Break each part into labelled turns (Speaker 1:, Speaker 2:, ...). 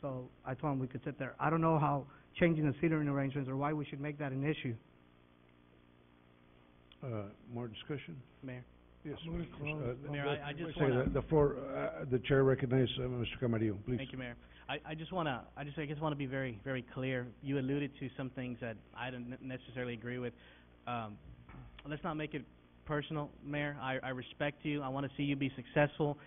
Speaker 1: So I told him we could sit there. I don't know how changing the seating arrangements or why we should make that an issue,
Speaker 2: Uh, more discussion?
Speaker 1: Mayor.
Speaker 2: Yes.
Speaker 3: I'm gonna
Speaker 2: Mr.
Speaker 3: close.
Speaker 2: Uh, no,
Speaker 4: Mayor,
Speaker 2: wait-
Speaker 4: I- I
Speaker 2: wait a
Speaker 4: just
Speaker 2: second.
Speaker 4: wanna-
Speaker 2: The the floor, uh, the chair recognizes, uh, Mr. Camarillo, please.
Speaker 4: Thank you, Mayor. I, I just wanna, I just, I just wanna be very, very clear. You alluded to some things that I don't ne- necessarily agree with. Um, let's not make it personal, Mayor. I, I respect you. I wanna see you be successful.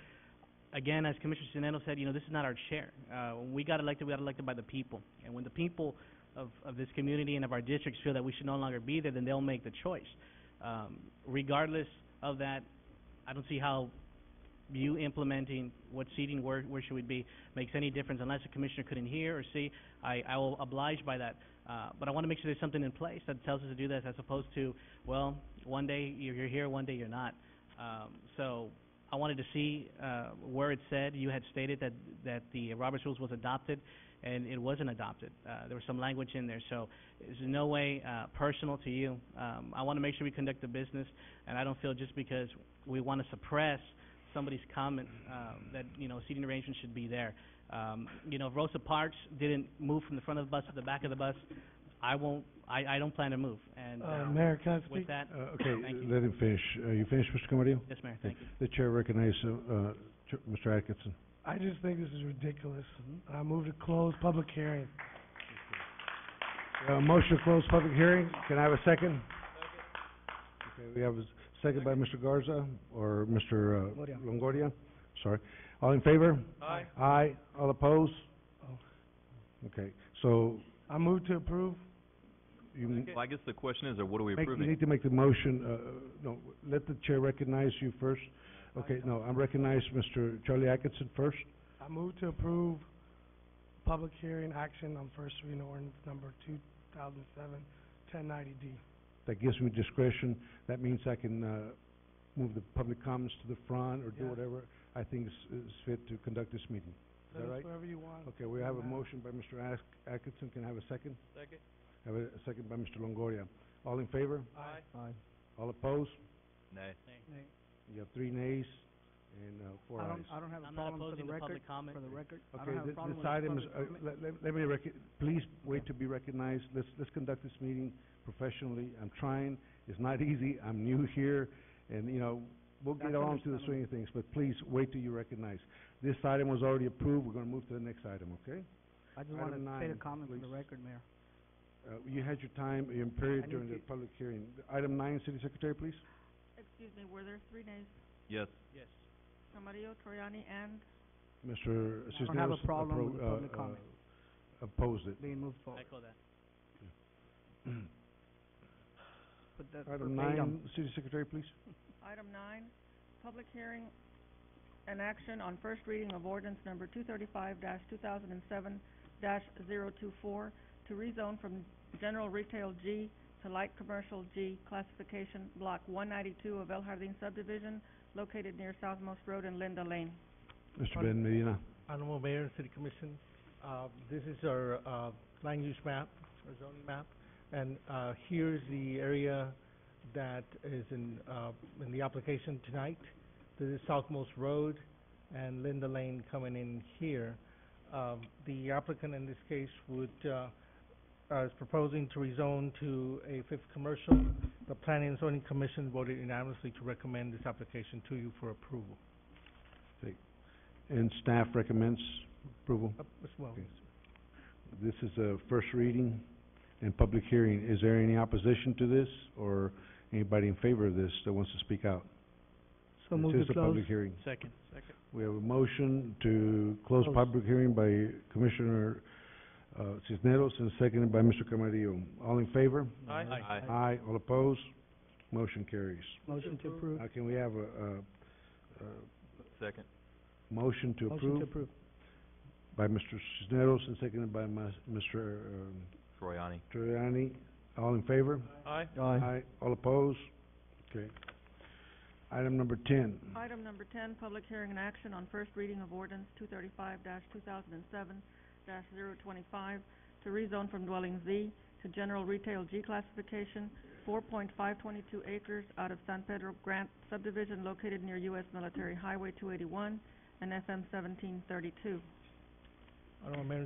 Speaker 4: Again, as Commissioner Sinano said, you know, this is not our chair. Uh, when we got elected, we got elected by the people. And when the people of, of this community and of our districts feel that we should no longer be there, then they'll make the choice. Um, regardless of that, I don't see how you implementing what seating, where, where should we be, makes any difference unless a commissioner couldn't hear or see. I, I will oblige by that. Uh, but I want to make sure there's something in place that tells us to do this as opposed to, well, one day you're, you're here, one day you're not. Um, so I wanted to see, uh, where it said, you had stated that, that the Roberts rules was adopted and it wasn't adopted. Uh, there was some language in there, so it's in no way, uh, personal to you. Um, I want to make sure we conduct the business and I don't feel just because we want to suppress somebody's comment, um, that, you know, seating arrangements should be there. Um, you know, if Rosa Parks didn't move from the front of the bus to the back of the bus, I won't, I, I don't plan to move, and,
Speaker 3: Uh,
Speaker 4: um,
Speaker 3: Mayor, can I
Speaker 4: with
Speaker 3: speak?
Speaker 4: that,
Speaker 2: Uh, okay,
Speaker 4: Thank you.
Speaker 2: let him finish. Uh, you finished, Mr. Camarillo?
Speaker 4: yes, Mayor, thank you.
Speaker 2: The chair recognizes, uh, uh, Ch- Mr. Atkinson.
Speaker 3: I just think this is ridiculous. I move to close public hearing.
Speaker 2: Uh, motion to close public hearing. Can I have a second? Okay, we have a s- second by Mr. Garza or Mr. uh,
Speaker 1: Longoria.
Speaker 2: Longoria, sorry. All in favor?
Speaker 3: Aye.
Speaker 2: Aye. All opposed?
Speaker 3: Oh.
Speaker 2: Okay, so
Speaker 3: I move to approve.
Speaker 2: you m-
Speaker 5: Well, I guess the question is, or what are we
Speaker 2: Make, you
Speaker 5: approving?
Speaker 2: need to make the motion, uh, no, let the chair recognize you first. Okay, no, I recognize Mr. Charlie Atkinson first.
Speaker 3: I move to approve public hearing action on first reading ordinance number two thousand seven, ten ninety D.
Speaker 2: That gives me discretion. That means I can, uh, move the public comments to the front or do
Speaker 3: Yeah.
Speaker 2: whatever I think is, is fit to conduct this meeting. Is that
Speaker 3: Let us
Speaker 2: right?
Speaker 3: wherever you want.
Speaker 2: Okay, we have a
Speaker 3: Doesn't matter.
Speaker 2: motion by Mr. Ask, Atkinson. Can I have a second? Second. Have a a second by Mr. Longoria. All in favor?
Speaker 3: Aye.
Speaker 2: Aye. All opposed?
Speaker 5: Nay.
Speaker 2: You have three nays and, uh, four
Speaker 1: I
Speaker 2: ayes.
Speaker 1: don't, I don't have a
Speaker 4: I'm not
Speaker 1: problem for the
Speaker 4: opposing the
Speaker 1: record,
Speaker 4: public comment.
Speaker 1: for the record. I don't
Speaker 2: Okay,
Speaker 1: have a
Speaker 2: thi-
Speaker 1: problem with
Speaker 2: this
Speaker 1: the
Speaker 2: item is,
Speaker 1: public
Speaker 2: uh,
Speaker 1: comment.
Speaker 2: let, let- let me rec- please wait to be recognized. Let's, let's conduct this meeting professionally. I'm trying. It's not easy. I'm new here and, you know, we'll get
Speaker 1: That's
Speaker 2: on to the
Speaker 1: understandable.
Speaker 2: swing of things, but please wait till you're recognized. This item was already approved. We're gonna move to the next item, okay?
Speaker 1: I just
Speaker 2: uh, Item
Speaker 1: wanted to state a
Speaker 2: nine,
Speaker 1: comment for the
Speaker 2: please.
Speaker 1: record, Mayor.
Speaker 2: Uh, you had your time, your
Speaker 1: I
Speaker 2: period
Speaker 1: need
Speaker 2: during the
Speaker 1: to-
Speaker 2: public hearing. Item nine, City Secretary, please.
Speaker 6: Excuse me, were there three names?
Speaker 5: Yes.
Speaker 4: Yes.
Speaker 6: Camarillo, Troyani, and
Speaker 2: Mr.
Speaker 1: I
Speaker 2: Cisneros.
Speaker 1: don't have a problem
Speaker 2: appro-
Speaker 1: with the
Speaker 2: uh,
Speaker 1: public
Speaker 2: uh,
Speaker 1: comment
Speaker 2: Opposed it.
Speaker 1: being moved forward.
Speaker 4: Echo that.
Speaker 1: Put that verbatim.
Speaker 2: Item nine, City Secretary, please.
Speaker 6: item nine, public hearing and action on first reading of ordinance number two thirty-five two thousand and seven 24 to rezone from general retail G to light commercial G classification block one ninety-two of El Jardín subdivision located near Southmost Road and Linda Lane.
Speaker 2: Mr.
Speaker 3: On-
Speaker 2: Ben Medina.
Speaker 3: Honorable Mayor and City Commission, uh, this is our, uh, land use map, our zoning map, and, uh, here's the area that is in, uh, in the application tonight. This is Southmost Road and Linda Lane coming in here. Um, the applicant in this case would, uh, uh, is proposing to rezone to a fifth commercial. The Planning and Zoning Commission voted unanimously to recommend this application to you for approval.
Speaker 2: And staff recommends approval.
Speaker 3: Up, Ms. Wells.
Speaker 2: Okay. This is a first reading and public hearing. Is there any opposition to this or anybody in favor of this that wants to speak out?
Speaker 1: So move
Speaker 2: This is
Speaker 1: to
Speaker 2: a
Speaker 1: close.
Speaker 2: public hearing.
Speaker 4: Second. Second.
Speaker 2: We have a motion to close
Speaker 1: Close.
Speaker 2: public hearing by Commissioner, uh, Cisneros and seconded by Mr. Camarillo. All in favor?
Speaker 4: Aye.
Speaker 5: Aye.
Speaker 2: Aye. All opposed? Motion carries.
Speaker 1: Motion to approve.
Speaker 2: Now can we have a, a, a
Speaker 5: Second.
Speaker 2: motion to
Speaker 1: Motion to
Speaker 2: approve
Speaker 1: approve.
Speaker 2: by Mr. Cisneros and seconded by mas- Mr. um,
Speaker 5: Troyani.
Speaker 2: Giuliani, all in favor?
Speaker 5: Aye.
Speaker 2: Aye. All opposed? Okay. Item number ten,
Speaker 6: Item number ten, public hearing and action on first reading of ordinance two thirty-five two thousand and seven 25 to rezone from dwelling Z to general retail G classification, four point five twenty-two acres out of San Pedro Grant subdivision located near US Military Highway two eighty-one and FM seventeen thirty-two.
Speaker 3: Honorable Mayor